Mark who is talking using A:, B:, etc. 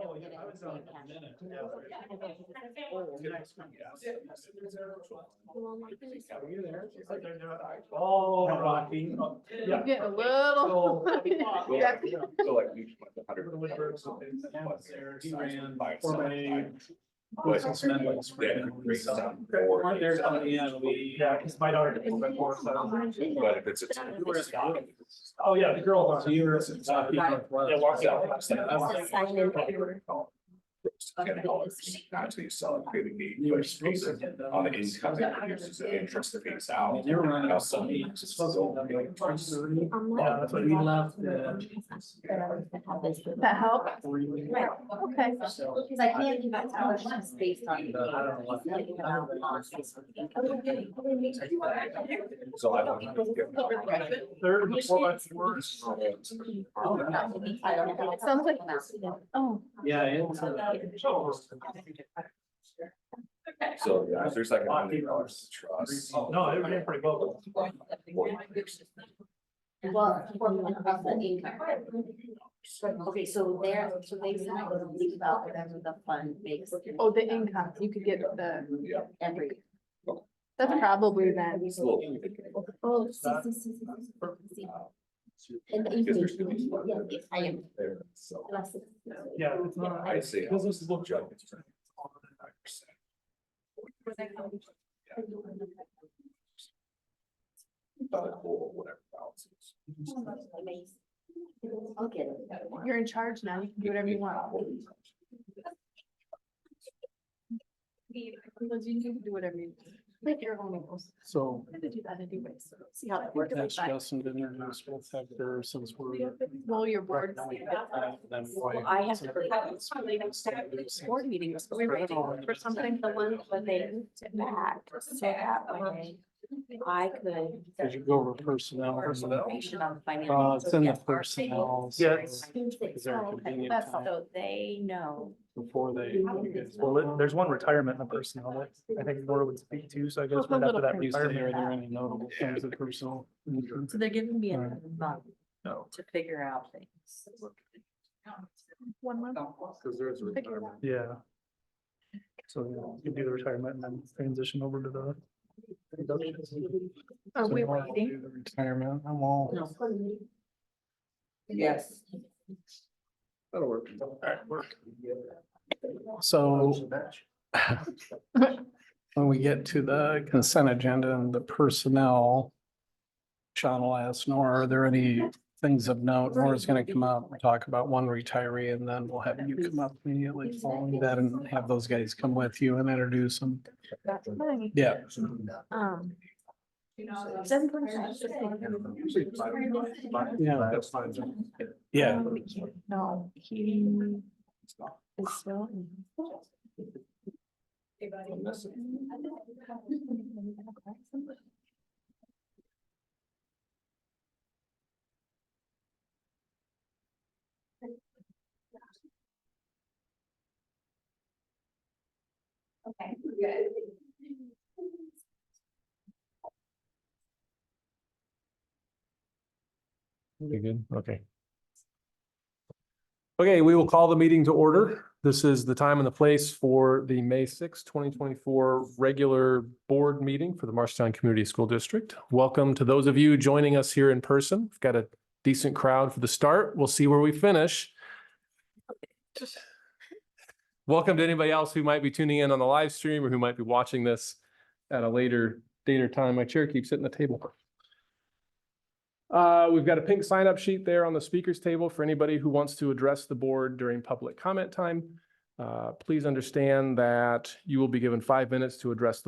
A: Oh, yeah, I was on a minute. Are you there? She's like, "They're not I-" Oh, Rocky. Yeah.
B: Getting a little.
A: So-
C: Well,
B: Yeah.
C: So like we just went to
A: Over
C: hundred.
A: the Lindberghs, so they- yeah, it's there. He ran
C: By
A: for
C: itself.
A: my-
C: But-
A: Boys and men, like, spread
C: Yeah,
A: it.
C: great
A: So-
C: sound.
A: Weren't there, so, yeah, we- yeah, 'cause my daughter did a little bit more, so-
C: But if it's. a-
A: You were at the office. Oh, yeah, the girl. So you were. Yeah, walked out. I was like,
D: Sign in.
C: Ten dollars, not to sell it, create a gate,
A: You
C: but
A: were
C: it's based
A: supposed to.
C: on the income, it reduces the interest that pays out.
A: They were running
C: Now
A: out of
C: suddenly,
A: money.
C: it's
A: It's
C: just
A: supposed to
C: so-
A: be like twenty thirty.
D: Yeah,
A: Yeah, that's what we left the.
B: That help?
D: Right,
B: Okay.
A: So.
D: because I can't give out scholarships based on.
A: But I don't know what-
D: Nothing about laws.
C: So I don't. know if you-
A: Third before that's worse.
B: Sounds like- Oh,
A: Yeah, it's. uh,
C: So yeah, there's like a hundred dollars to trust. oh,
A: No, it ran pretty well.
D: Well, for of the income. Okay, so there, so they said I was leave about whatever the fund makes.
B: oh, the income, you could get the,
C: Yeah.
D: Every.
B: that's probably then.
C: it's a little-
D: Oh, see, see, see, see, see, see. And
C: Because
D: even,
C: there's really-
D: yeah, yes, I am.
C: There, So.
D: Blessed.
A: Yeah, it's not.
C: I see.
A: Because this is what.
C: Joe, it's- Thought it cool, whatever. balances.
D: I'll get it.
B: You're in charge now. You can do whatever you want. Because you can do whatever you. want. Like your own rules.
E: So
B: I'm gonna do that anyway, so see how that works.
E: that's
B: But-
E: Justin Dinner, who's both sector since we're.
B: Well, your board.
D: Well, I have to. Board meeting was
B: We're
D: great.
B: waiting for something, the one when they moved it back,
D: So that way I could.
E: As you go over personnel.
D: more information on
E: Uh,
D: financials.
E: it's in the personnel. so
A: Yes.
E: Is there a
D: Oh, okay.
E: convenient
B: That's
E: time
D: So they know.
E: before they? you guys-
A: Well, there- there's one retirement in the personnel that I think Laura would speak to, so I guess
B: Just a
A: right after
B: little
A: that
E: You say, are
A: retirement.
E: there any notable things of personnel?
D: So they're giving me another month
A: No.
D: to figure out things.
B: One month.
C: Cause there's. a
B: Figure it
C: retirement.
B: out.
A: Yeah. So yeah, you do the retirement and then transition over to the.
B: Are
E: So
B: we
E: you wanna
B: waiting?
E: do the Retirement, I'm all.
D: Yes.
C: That'll work.
A: Alright, work.
E: So when we get to the consent agenda and the personnel, Sean will ask Nora, are there any things of note? Nora's going to come up and talk about one retiree and then we'll have you come up immediately following that and have those guys come with you and introduce them.
B: That's fine.
E: Yeah.
B: Um,
D: Seven point five.
E: Yeah.
C: That's fine.
E: Yeah.
B: no, Um, he is still. in-
D: Okay, good.
F: You good? Okay. Okay, we will call the meeting to order. This is the time and the place for the May sixth, twenty twenty-four regular board meeting for the Marshtown Community School District. Welcome to those of you joining us here in person. We've got a decent crowd for the start. We'll see where we finish. Welcome to anybody else who might be tuning in on the live stream or who might be watching this at a later date or time. My chair keeps hitting the table. Uh, we've got a pink sign up sheet there on the speakers table for anybody who wants to address the board during public comment time. Uh, please understand that you will be given five minutes to address the